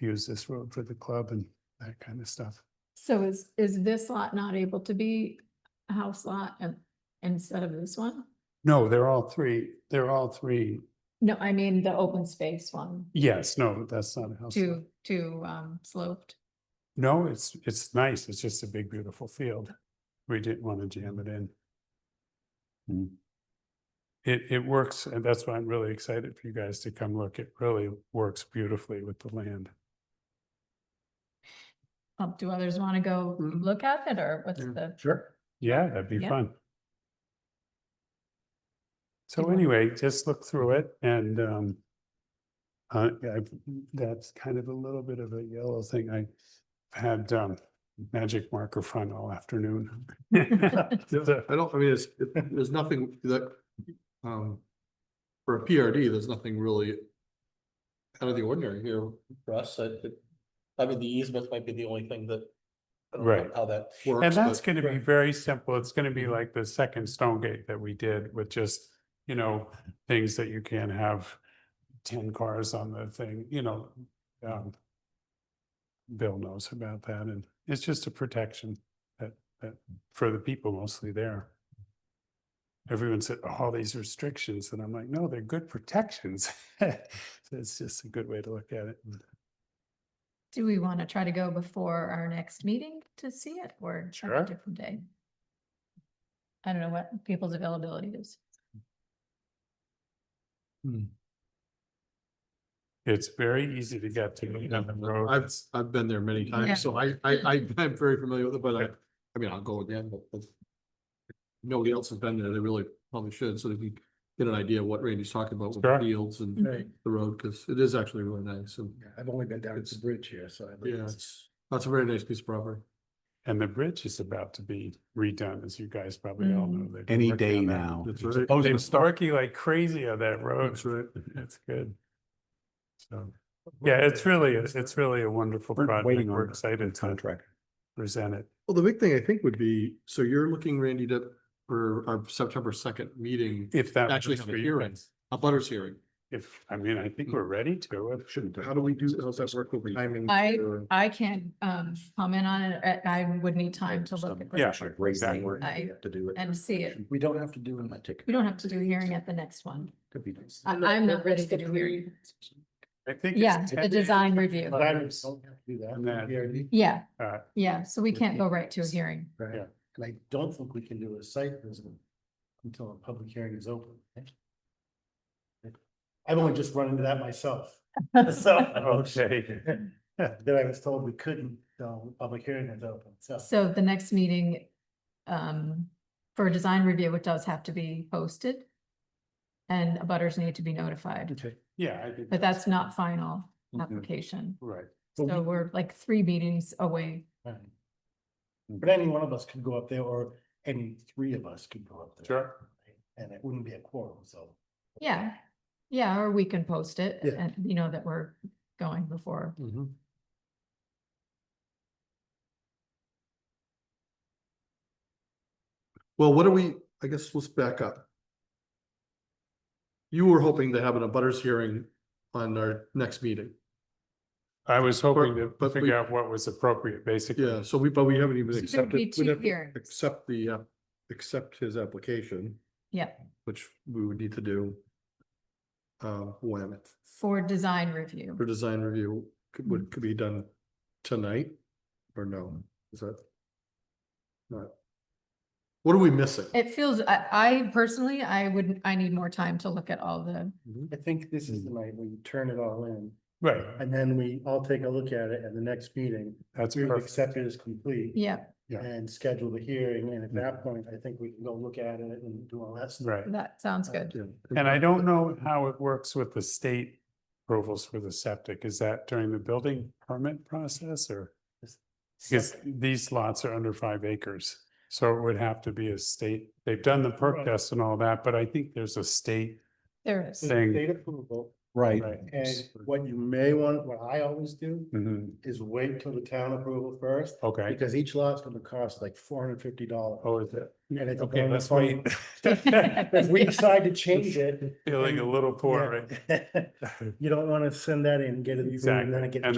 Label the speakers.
Speaker 1: use this road for the club and that kind of stuff.
Speaker 2: So is, is this lot not able to be a house lot and, instead of this one?
Speaker 1: No, they're all three, they're all three,
Speaker 2: No, I mean the open space one,
Speaker 1: yes, no, that's not a house. lot.
Speaker 2: too, too, um, sloped.
Speaker 1: No, it's, it's nice, it's just a big, beautiful field. We didn't want to jam it in.
Speaker 3: Mm.
Speaker 1: It, it works, and that's why I'm really excited for you guys to come look. It really works beautifully with the land.
Speaker 2: Um, do others want to go
Speaker 1: Mhm.
Speaker 2: look at it or what's
Speaker 1: Yeah.
Speaker 2: the,
Speaker 1: Sure. Yeah, that'd be
Speaker 2: Yeah.
Speaker 1: fun. So
Speaker 2: Good one.
Speaker 1: anyway, just look through it and um. Uh, yeah, I've- that's kind of a little bit of a yellow thing. I had um magic marker fun all afternoon. So,
Speaker 4: I don't, I mean, it's, it- there's nothing that, um, for a PRD, there's nothing really out of the ordinary here.
Speaker 3: For us, I, think- I mean, the easement might be the only thing that. I don't know
Speaker 1: Right.
Speaker 3: How that,
Speaker 1: And
Speaker 4: works,
Speaker 1: that's
Speaker 4: but-
Speaker 1: gonna be very simple. It's gonna be like the second stone gate that we did with just, you know, things that you can't have. Ten cars on the thing, you know, um. Bill knows about that and it's just a protection that, that for the people mostly there. Everyone said, "Oh, all these restrictions and I'm like, no, they're good protections. So It's just a good way to look at it.
Speaker 2: do we want to try to go before our next meeting to see it or at
Speaker 1: Sure.
Speaker 2: a different day? I don't know what people's availability is.
Speaker 1: It's very easy to get to. you know, the road
Speaker 4: I've,
Speaker 1: is-
Speaker 4: I've been there many
Speaker 2: Yeah.
Speaker 4: times, so I, I, I- I'm very familiar with it, but I, I mean, I'll go again, but but nobody else has been there, they really probably should, so that we get an idea of what Randy's talking about with the
Speaker 1: Sure.
Speaker 4: fields and
Speaker 2: Mhm.
Speaker 4: the road, because it is actually really nice, and
Speaker 5: Yeah, I've only been down to
Speaker 4: It's-
Speaker 5: the bridge here, so. I
Speaker 4: yeah, it's, that's a very nice piece of property.
Speaker 1: And the bridge is about to be redone, as you guys probably all know.
Speaker 2: Mm.
Speaker 1: They've been
Speaker 3: Any
Speaker 1: working
Speaker 3: day
Speaker 1: on that.
Speaker 3: now.
Speaker 4: That's
Speaker 1: They've-
Speaker 4: right.
Speaker 1: They've been working like crazy on that road.
Speaker 4: That's right.
Speaker 1: That's good. So, yeah, it's really, it's really a wonderful
Speaker 3: We're
Speaker 1: project.
Speaker 3: waiting on
Speaker 1: We're
Speaker 3: the
Speaker 1: excited to
Speaker 3: contractor.
Speaker 1: present it.
Speaker 4: Well, the big thing I think would be, so you're looking, Randy, to, for our September second meeting,
Speaker 1: If that.
Speaker 4: Actually
Speaker 1: works
Speaker 4: have a
Speaker 1: for you
Speaker 4: hearing.
Speaker 1: guys.
Speaker 4: a butters hearing.
Speaker 1: If, I mean, I think we're ready to. uh, Shouldn't.
Speaker 5: How do we do, how's that work with timing?
Speaker 2: I-
Speaker 5: for-
Speaker 2: I can't, um, comment on it. I, I would need time to look
Speaker 3: Some-
Speaker 2: at.
Speaker 1: Yeah,
Speaker 2: it
Speaker 3: like, raise
Speaker 2: personally.
Speaker 3: that word,
Speaker 2: I-
Speaker 3: you have to do it.
Speaker 2: and see it.
Speaker 3: We don't have to do it, I take.
Speaker 2: We don't have to do a hearing at the next one.
Speaker 3: Could be nice.
Speaker 2: I- I'm not ready to do hearing.
Speaker 1: I think. it's
Speaker 2: Yeah, the
Speaker 1: 10
Speaker 2: design review.
Speaker 1: But I was-
Speaker 5: Don't have to do that.
Speaker 1: And that-
Speaker 5: PRD,
Speaker 2: Yeah,
Speaker 1: Uh,
Speaker 2: yeah, so we can't go right to a hearing.
Speaker 5: right?
Speaker 1: Yeah.
Speaker 5: And I don't think we can do a site visit until a public hearing is open. I've only just run into that myself. So,
Speaker 1: Okay,
Speaker 5: that I was told we couldn't, until the public hearing is open, so.
Speaker 2: So the next meeting, um, for a design review, it does have to be posted. And abutters need to be notified,
Speaker 5: Okay.
Speaker 1: yeah, I think.
Speaker 2: but that's not final
Speaker 4: Mhm.
Speaker 2: application.
Speaker 1: Right.
Speaker 5: But
Speaker 2: So
Speaker 5: Mm-hmm. we-
Speaker 2: we're like three meetings away.
Speaker 5: Right. But any one of us could go up there, or any three of us could go up there.
Speaker 1: Sure.
Speaker 5: And it wouldn't be a quorum, so.
Speaker 2: Yeah, yeah, or we can post it
Speaker 5: Yeah.
Speaker 2: and you know that we're going before.
Speaker 4: Mm-hmm. Well, what do we, I guess, let's back up. You were hoping to have an abutters hearing on our next meeting.
Speaker 1: I was hoping to
Speaker 4: but we-
Speaker 1: figure out what was appropriate, basically.
Speaker 4: Yeah, so we, but we haven't even
Speaker 2: So there'd be
Speaker 4: accepted,
Speaker 2: two
Speaker 4: we'd have to
Speaker 2: hearings.
Speaker 4: accept the, uh, accept his application,
Speaker 2: Yeah,
Speaker 4: which we would need to do. Uh, when,
Speaker 2: for design review.
Speaker 4: for design review, could,
Speaker 1: Mm.
Speaker 4: would, could be done tonight or no? Is that? Not. What are we missing?
Speaker 2: It feels, I, I personally, I would, I need more time to look at all the,
Speaker 5: I think this is the night we turn it all in,
Speaker 1: Right,
Speaker 5: and then we all take a look at it at the next meeting.
Speaker 1: that's
Speaker 5: We would
Speaker 1: perfect.
Speaker 5: accept it as complete
Speaker 2: yeah,
Speaker 1: Yeah.
Speaker 5: and schedule the hearing, and at that point, I think we can go look at it and do all that stuff.
Speaker 1: Right.
Speaker 2: that sounds good.
Speaker 4: Yeah.
Speaker 1: And I don't know how it works with the state approvals for the septic. Is that during the building permit process or? Because these lots are under five acres, so it would have to be a state, they've done the perk
Speaker 5: Right.
Speaker 1: test and all that, but I think there's a state.
Speaker 2: There is.
Speaker 1: Thing.
Speaker 5: State approval,
Speaker 3: Right.
Speaker 1: Right.
Speaker 5: and what you may want, what I always do,
Speaker 1: Mhm,
Speaker 5: is wait till the town approval first,
Speaker 1: Okay,
Speaker 5: because each lot's gonna cost like four hundred and fifty dollars.
Speaker 1: oh, is it?
Speaker 5: And it's a
Speaker 1: Okay, let's
Speaker 5: bonus
Speaker 1: wait.
Speaker 5: If we decide to change it.
Speaker 1: Feeling a little poor,
Speaker 5: yeah, You don't wanna send that in, get it. approved, and then it
Speaker 1: Exactly.
Speaker 5: gets
Speaker 1: And